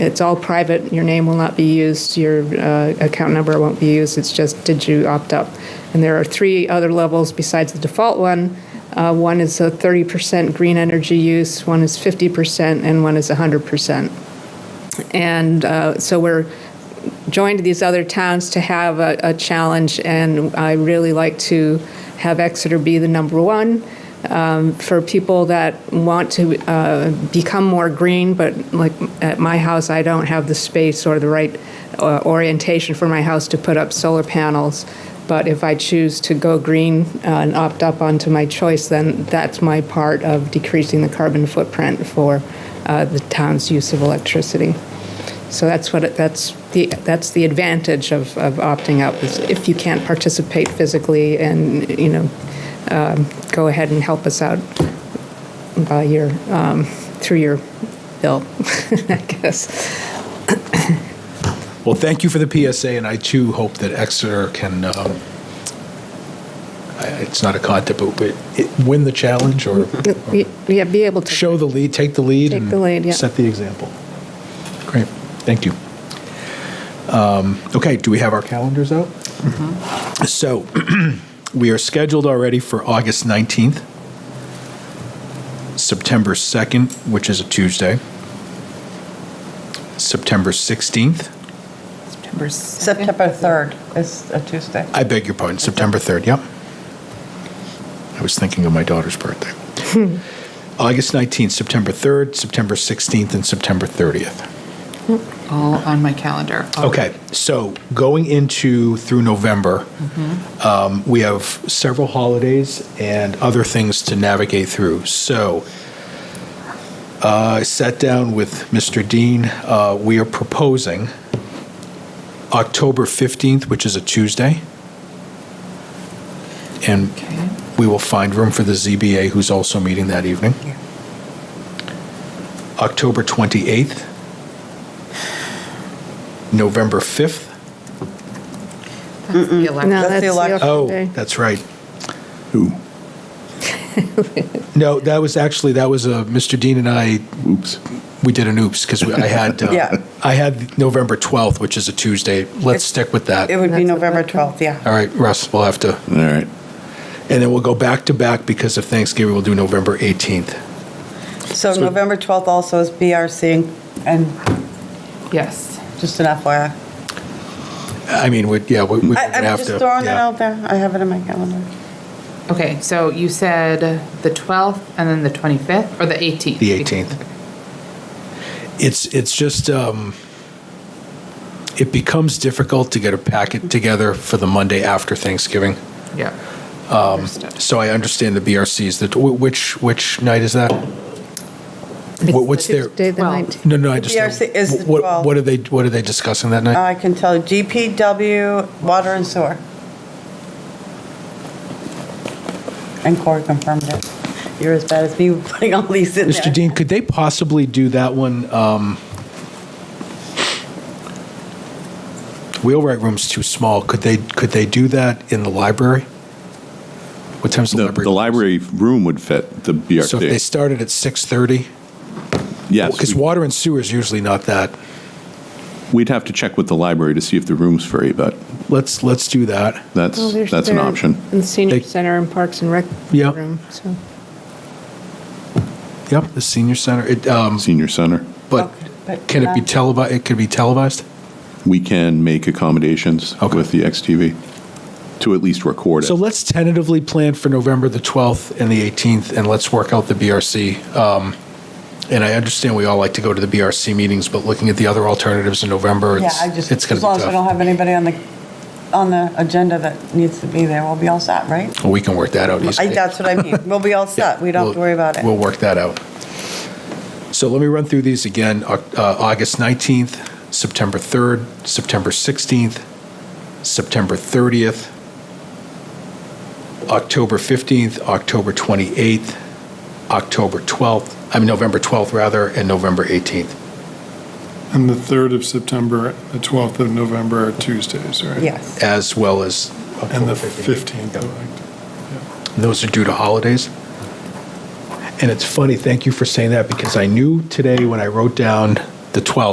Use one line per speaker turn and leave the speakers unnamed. It's all private. Your name will not be used. Your uh, account number won't be used. It's just, did you opt up? And there are three other levels besides the default one. Uh, One is a 30% green energy use, one is 50%, and one is 100%. And uh, so we're joined these other towns to have a, a challenge, and I really like to have Exeter be the number one um, for people that want to uh, become more green. But like at my house, I don't have the space or the right uh, orientation for my house to put up solar panels. But if I choose to go green uh, and opt up onto my choice, then that's my part of decreasing the carbon footprint for uh, the town's use of electricity. So that's what, it- that's the, that's the advantage of, of opting out, is if you can't participate physically and, you know, um, go ahead and help us out by your, um, through your bill, I guess.
Well, thank you for the PSA, and I too hope that Exeter can, um, I- it's not a contest, but it- win the challenge or
Y- Yeah, be able to.
show the lead, take the lead.
Take
and
the lead, yeah.
Set the example. Great, thank you. Um, Okay, do we have our calendars out?
Mm-hmm.
So, we are scheduled already for August 19th, September 2nd, which is a Tuesday, September 16th,
September 2nd.
September 3rd is a Tuesday.
I beg your pardon, September 3rd, yep. I was thinking of my daughter's birthday. August 19th, September 3rd, September 16th, and September 30th.
All on my calendar. Oh,
Okay, so going into through November, um, we have several holidays and other things to navigate through. So uh, I sat down with Mr. Dean. Uh, we are proposing October 15th, which is a Tuesday. And
Okay.
we will find room for the ZBA, who's also meeting that evening. October 28th, November 5th.
That's the elect-
No,
That's the election.
Oh,
day.
that's right. Who? No, that was actually, that was, uh, Mr. Dean and I, oops, we did an oops, because I had,
Yeah.
uh, I had November 12th, which is a Tuesday. Let's stick with that.
It would be
That's
November
okay.
12th, yeah.
All right, Russ, we'll have to,
All right.
and then we'll go back to back, because of Thanksgiving, we'll do November 18th.
So
So-
November 12th also is BRC, and
Yes.
just an FYI.
I mean, we, yeah, we- we're
I-
going to
I'm
have to.
just throwing it
yeah.
out there. I have it in my calendar.
Okay, so you said the 12th and then the 25th or the 18th?
The 18th. It's, it's just, um, it becomes difficult to get a packet together for the Monday after Thanksgiving.
Yeah.
Um,
Understood.
So I understand the BRCs, that, wh- which, which night is that? Wh- What's their,
Tuesday, the
Well,
19th.
no, no, I just.
BRC is the
What,
12th.
what are they, what are they discussing that night?
I can tell you GPW, water and sewer. And Corey confirmed it. You're as bad as me putting all these in there.
Mr. Dean, could they possibly do that one? um, Wheelwright room's too small. Could they, could they do that in the library? What time's the
The,
library?
the library room would fit the BRT.
So if they started at 6:30?
yes,
Because
we-
water and sewer is usually not that.
we'd have to check with the library to see if the room's free, but
Let's, let's do that.
that's
Well, there's
that's an
their-
option.
In the senior
They-
center and Parks and Rec
Yeah.
room, so.
Yep, the senior center, It, um,
Senior center,
but can it be televised? It could be televised?
we can make accommodations
Okay.
with the XTV to at least record it.
So let's tentatively plan for November the 12th and the 18th, and let's work out the BRC. Um, And I understand we all like to go to the BRC meetings, but looking at the other alternatives in November,
Yeah,
it's
I just,
it's going
as
to
long
be
as we
tough.
don't have anybody on the, on the agenda that needs to be there, we'll be all set, right?
Well, We can work that out
I-
easily.
That's what I mean. We'll be all set. We don't have to
We'll-
worry about it.
We'll work that out. So let me run through these again. Oc- uh, August 19th, September 3rd, September 16th, September 30th, October 15th, October 28th, October 12th, I mean, November 12th, rather, and November 18th.
And the 3rd of September, the 12th of November are Tuesdays, right?
Yes.
as well as.
And the
October
15th. of October.
Those are due to holidays. And it's funny, thank you for saying that, because I knew today when I wrote down the 12th.